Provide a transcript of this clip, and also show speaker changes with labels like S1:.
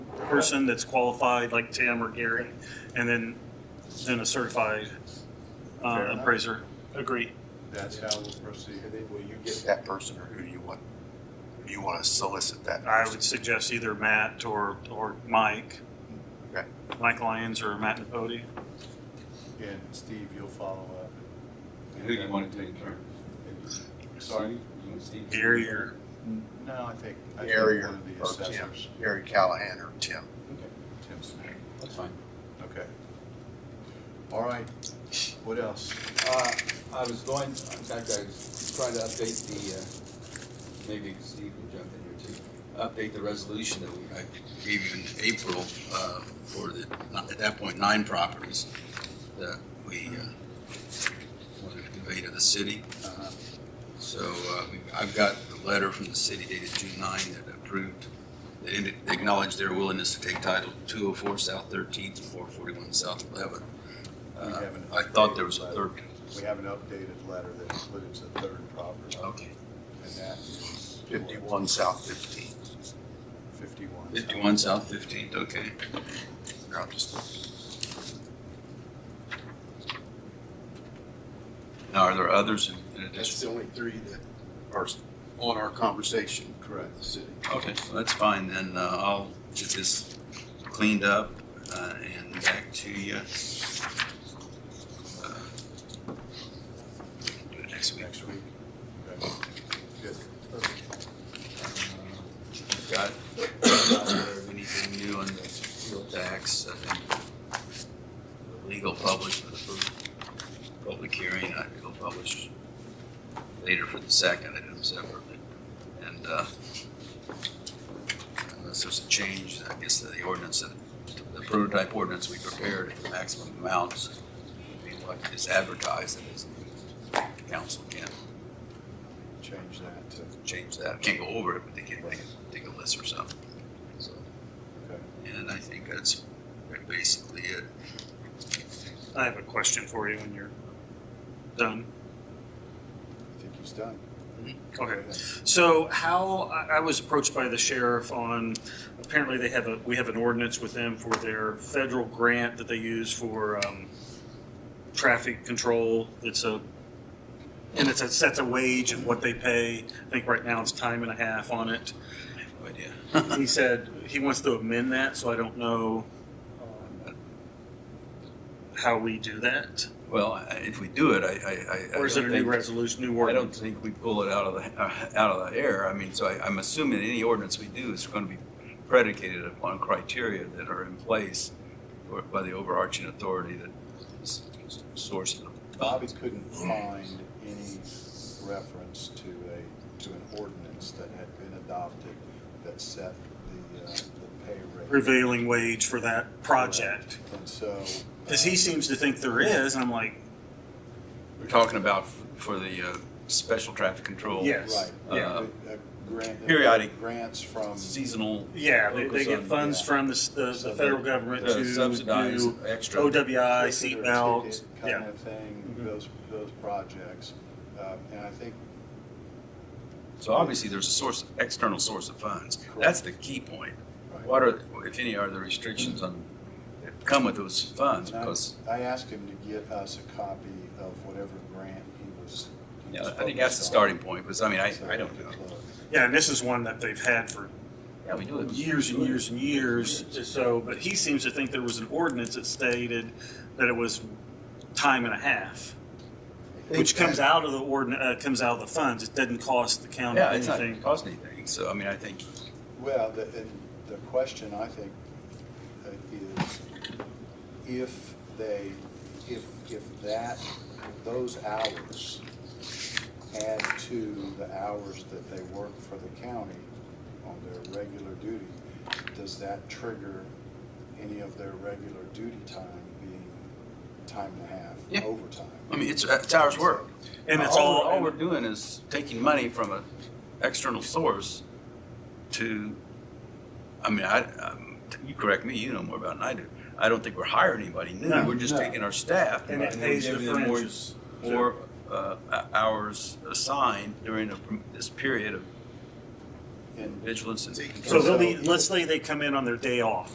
S1: person that's qualified, like Tim or Gary, and then, then a certified
S2: Fair
S1: uh,
S2: enough.
S1: appraiser.
S2: Agree.
S3: That's how we'll proceed.
S4: And then will you get that person or who do you want? Who do you want to solicit that
S1: I
S4: person?
S1: would suggest either Matt or, or Mike,
S4: Okay.
S1: Mike Lyons or Matt Napodi.
S3: And Steve, you'll follow up.
S5: Who do you want to take turns? Sorry? You want Steve?
S1: Gary or,
S3: No, I think, I think
S4: Gary or
S3: one of the
S4: or Tim,
S3: assessors.
S4: Gary Callahan or Tim.
S5: Okay,
S3: Tim Smith.
S5: That's fine.
S3: Okay. All right, what else?
S5: Uh, I was going, in fact, I was trying to update the, uh, maybe Steve can jump in here too. Update the resolution that we, I gave you in April, uh, for the, at that point, nine properties that we, uh, wanted to convey to the city. Uh, So, uh, we- I've got the letter from the city dated June nine that approved, they ended- they acknowledged their willingness to take title two oh four South Thirteenth and four forty-one South Eleventh.
S3: We
S5: Uh,
S3: haven't
S5: I thought there was
S3: updated
S5: a
S3: that.
S5: third
S3: We have an updated letter that includes a third property.
S5: Okay.
S3: And that is.
S4: Fifty-one South Fifteen.
S3: Fifty-one.
S5: Fifty-one South Fifteenth, okay.
S4: Here, I'll just-
S5: Now, are there others in- in
S6: That's the
S5: addition?
S6: only three that
S4: Or
S6: on our conversation
S3: Correct.
S6: with the city.
S5: Okay, so that's fine, then uh, I'll get this cleaned up uh, and back to you. Uh, Do it next week.
S3: Next week. Okay. Good.
S5: Got it. Uh, Anything new on the fuel tax? I think the Legal published for the first public hearing, I will publish later for the second, item separately. And uh, unless there's a change, I guess to the ordinance, that- the prototype ordinance we prepared, the maximum amounts would be what is advertised, and is, council can
S3: Change that to,
S5: change that. Can't go over it, but they can make, take a list or something. So,
S3: okay.
S5: and I think that's basically it.
S1: I have a question for you when you're done.
S3: I think he's done.
S1: Okay. So how, I, I was approached by the sheriff on, apparently they have a, we have an ordinance with them for their federal grant that they use for, um, traffic control. It's a, and it's a, sets a wage of what they pay. I think right now it's time and a half on it.
S5: I have no idea.
S1: He said he wants to amend that, so I don't know um, how we do that.
S5: Well, I- if we do it, I, I- I, I.
S1: Or is it a
S5: don't
S1: new
S5: think-
S1: resolution, new
S5: I don't
S1: ordinance?
S5: think we pull it out of the, uh, out of the air. I mean, so I, I'm assuming any ordinance we do is going to be predicated upon criteria that are in place or- by the overarching authority that is sourced.
S3: Bobby couldn't find any reference to a, to an ordinance that had been adopted that set the, uh, the pay rate.
S1: Prevailing wage for that project.
S3: And so.
S1: Because he seems to think there is, and I'm like,
S5: We're talking about f- for the, uh, special traffic control.
S1: Yes.
S3: uh, Right.
S5: Yeah.
S3: A- a grant- uh,
S5: Periodic.
S3: Grants from,
S5: Seasonal.
S1: yeah, they, they get
S5: Focus on-
S1: funds from the, s- the, the federal government
S5: Uh,
S1: to
S5: subsidize
S1: do
S5: extra.
S1: OWI,
S3: Consider a
S1: seatbelts,
S3: ticket
S1: yeah.
S3: Kind of thing,
S1: Mhm.
S3: those, those projects. Um, And I think
S5: So obviously, there's a source, external source of funds. That's the key point. What are, if any, are the restrictions on, that come with those funds?
S3: And I-
S5: Because,
S3: I asked him to get us a copy of whatever grant he was. he
S5: yeah,
S3: was
S5: I think that's
S3: focused
S5: the
S3: on,
S5: starting point, because I mean, I,
S3: so
S5: I
S3: we
S5: don't
S3: could
S5: know.
S3: look.
S1: Yeah, and this is one that they've had for
S5: Yeah, we do it.
S1: years and years and years. So, but he seems to think there was an ordinance that stated that it was time and a half, which comes out of the ordin, uh, comes out of the funds. It doesn't cost the county
S5: Yeah, it's not
S1: anything.
S5: gonna cost anything, so I mean, I think,
S3: Well, the, and the question I think uh, is if they, if, if that, those hours add to the hours that they work for the county on their regular duty, does that trigger any of their regular duty time being time and a
S5: Yeah.
S3: half overtime?
S5: I mean, it's, uh, it's hours work.
S1: And it's all,
S5: All we're doing is taking money from an external source to, I mean, I, um, you correct me, you know more about it than I do. I don't think we're hiring anybody new,
S1: No,
S5: we're just
S3: no.
S5: taking our staff.
S1: and it pays the
S5: giving them more-
S1: fringes.
S5: Or uh, hours assigned during a- this period of
S3: And
S5: vigilance and
S1: So they'll be, let's say they come in on their day off.